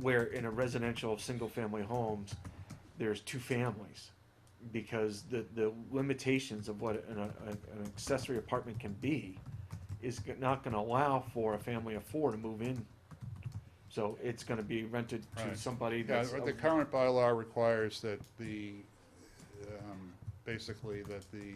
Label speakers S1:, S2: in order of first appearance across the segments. S1: where in a residential single family homes there's two families because the the limitations of what an, a, an accessory apartment can be is g- not going to allow for a family of four to move in so it's going to be rented to
S2: Right.
S1: somebody
S2: Yeah,
S1: that's
S2: the current bylaw requires that the, um, basically that the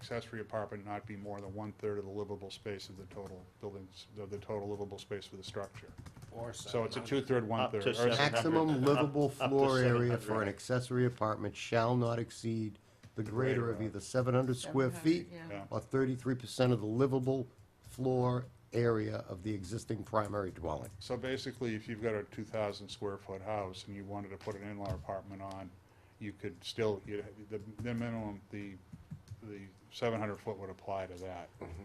S2: accessory apartment not be more than one-third of the livable space of the total buildings, of the total livable space for the structure.
S3: Or
S2: So it's a
S3: 700.
S2: two-third, one-third.
S4: to
S2: or
S4: seven
S2: s-
S4: hundred.
S5: Maximum
S4: Up-
S5: livable
S4: up to
S5: floor area for
S4: 700.
S5: an accessory apartment shall not exceed the greater of either seven hundred square
S6: 700,
S5: feet
S6: yeah.
S2: yeah.
S5: or thirty-three percent of the livable floor area of the existing primary dwelling.
S2: So basically, if you've got a two thousand square foot house and you wanted to put an in-law apartment on, you could still, you, the, the minimum, the, the seven hundred foot would apply to that.
S4: Mm-hmm.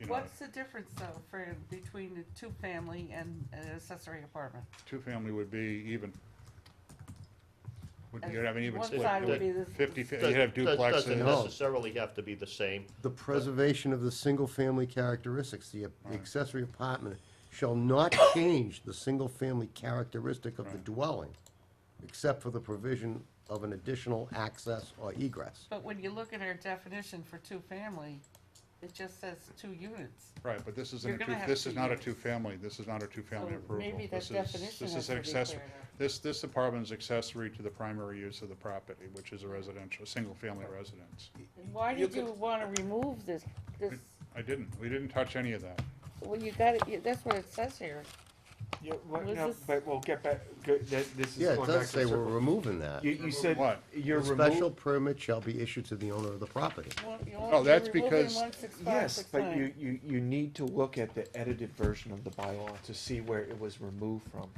S2: You know,
S6: What's the difference though for, between a two-family and an accessory apartment?
S2: two-family would be even, would,
S6: And
S2: you'd have an even
S6: one
S2: split.
S6: side
S2: It
S6: would be the-
S2: Fifty, fa-
S4: Does-
S2: you'd have
S4: does- Doesn't
S2: duplexes,
S5: No.
S4: necessarily have to be the same.
S5: The preservation of the single-family characteristics, the the accessory apartment shall not change the single-family characteristic of the dwelling, except for the provision of an additional access or egress.
S6: But when you look at our definition for two-family, it just says two units.
S2: right, but this
S6: You're
S2: isn't a
S6: gonna
S2: two,
S6: have
S2: this
S6: two
S2: is not a
S6: units.
S2: two-family, this is not a two-family
S6: So
S2: approval.
S6: maybe that
S2: This is-
S6: definition
S2: This
S6: has
S2: is an
S6: to be
S2: accessory,
S6: cleared up.
S2: this, this apartment is accessory to the primary use of the property, which is a residential, a single-family residence.
S7: Why
S3: You
S7: did you wanna remove this, this,
S2: I didn't, we didn't touch any of that.
S7: well, you got it, you- that's what it says here.
S1: yeah, what,
S7: Was
S1: no,
S7: this-
S1: but we'll get back go, that, this is
S5: Yeah, it
S1: going
S5: does
S1: back to
S5: say we're
S1: circle.
S5: removing that.
S1: you, you said
S2: What?
S1: you're
S5: A special permit shall be issued to the owner of the property.
S2: Oh, that's because-
S1: Yes, but you, you, you need to look at the edited version of the bylaw to see where it was removed from.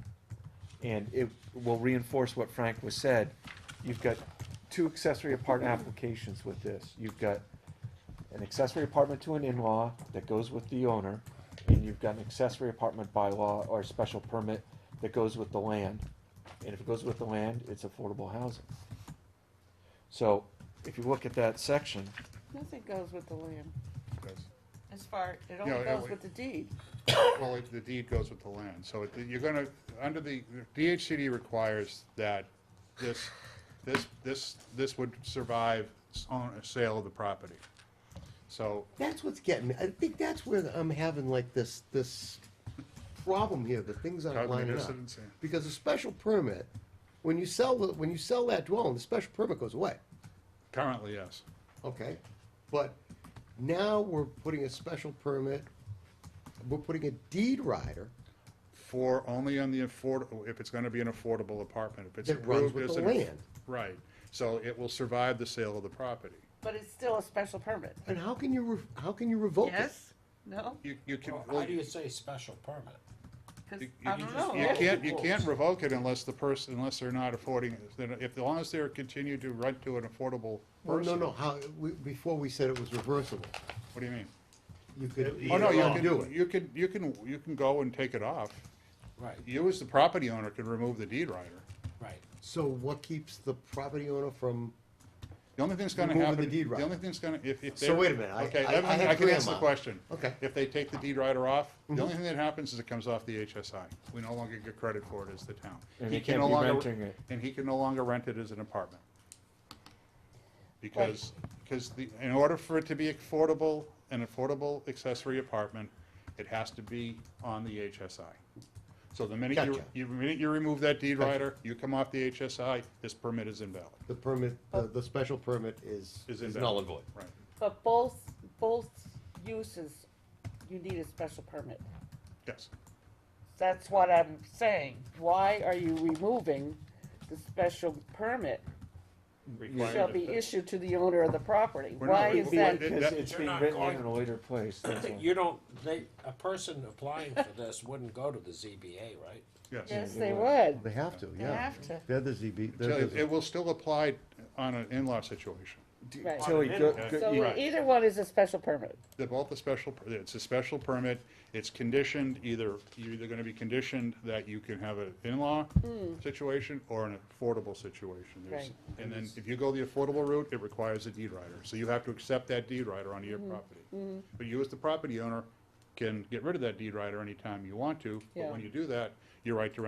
S1: And it will reinforce what Frank was said. You've got two accessory apartment applications with this. You've got an accessory apartment to an in-law that goes with the owner, and you've got an accessory apartment bylaw or special permit that goes with the land. And if it goes with the land, it's affordable housing. So, if you look at that section,
S7: Nothing goes with the land.
S2: That's-
S6: As far, it
S2: Yeah,
S6: only
S2: yeah,
S6: goes
S2: we-
S6: with the deed.
S2: Well, it- the deed goes with the land, so it- you're gonna, under the, DHCD requires that this, this, this, this would survive s- on a sale of the property. So,
S5: That's what's getting me. I think that's where I'm having like this, this problem here, that things aren't
S2: Cognitive
S5: lining up.
S2: dissonance, yeah.
S5: Because a special permit, when you sell, the when you sell that dwelling, the special permit goes away,
S2: currently, yes.
S5: okay? But now we're putting a special permit, we're putting a deed rider
S2: For, only on the affordable, if it's gonna be an affordable apartment, if it's
S5: that runs
S2: approved
S5: with
S2: as
S5: the
S2: an.
S5: land.
S2: Right, so it will survive the sale of the property.
S6: But it's still a special permit.
S5: And how can you, re- how can you revoke it?
S6: Yes? No?
S2: You, you can,
S3: Well,
S2: well,
S3: How do you say special permit?
S6: Cause
S2: You- you
S6: I
S2: can
S6: don't
S2: just-
S6: know.
S2: You
S3: Yeah.
S2: can't, you can't revoke it unless the person, unless they're not affording, then if, as long as they're continue to rent to an affordable
S5: Well, no,
S2: person.
S5: no, how, we, before we said it was reversible.
S2: What do you mean?
S5: You could.
S2: Oh, no, you
S5: Well, do
S2: can,
S5: it.
S2: you can, you can, you can go and take it off.
S3: Right,
S2: You as the property owner can remove the deed rider.
S3: right.
S5: So what keeps the property owner from
S2: The only thing that's gonna
S5: Removing the
S2: happen.
S5: deed rider.
S2: only thing that's gonna, if, if they.
S5: So wait a minute, I-
S2: Okay,
S5: I-
S2: let
S5: I
S2: me-
S5: have
S2: I can answer the
S5: grandma.
S2: question.
S5: Okay. Mm-hmm.
S2: If they take the deed rider off, the only thing that happens is it comes off the HSI. We no longer get credit for it as the town.
S1: And
S2: He
S1: they
S2: can
S1: can't
S2: no
S1: be
S2: longer-
S1: renting it.
S2: And he can no longer rent it as an apartment. Because, because the, in order for it to be affordable, an affordable accessory apartment, it has to be on the HSI. So the minute you,
S5: Gotcha.
S2: you, the minute you remove that deed rider, you come off the HSI, this permit is invalid.
S5: the permit, the, the special permit is?
S2: Is
S5: is
S2: invalid.
S5: null and void.
S2: Right.
S7: But both, both uses, you need a special permit.
S2: Yes.
S7: That's what I'm saying. Why are you removing the special permit shall be issued to the owner of the property?
S2: We're not-
S7: Why
S2: we-
S7: is
S2: we- that-
S7: that?
S1: Because
S2: that-
S1: it's
S3: They're
S1: being
S3: not
S1: written
S3: going-
S1: in a later place, that's all.
S3: You don't, they, a person applying for this wouldn't go to the ZBA, right?
S2: Yes.
S7: Yes, they would.
S5: They have to, yeah.
S6: have to.
S5: They're the ZB,
S2: So
S5: they're
S2: it it
S5: the,
S2: will still apply on an in-law situation.
S7: Right.
S1: Tilly, go- go- you-
S7: So either one is a special permit.
S2: They're both a special, per- it's a special permit, it's conditioned, either, you're either gonna be conditioned that you can have an in-law situation or an affordable situation. There's-
S7: Hmm. Right.
S2: And then if you go the affordable route, it requires a deed rider, so you have to accept that deed rider onto your
S7: Mm-hmm.
S2: property. But you as the property owner can get rid of that deed rider anytime you want to, but
S7: Yeah.
S2: when you do that, your right to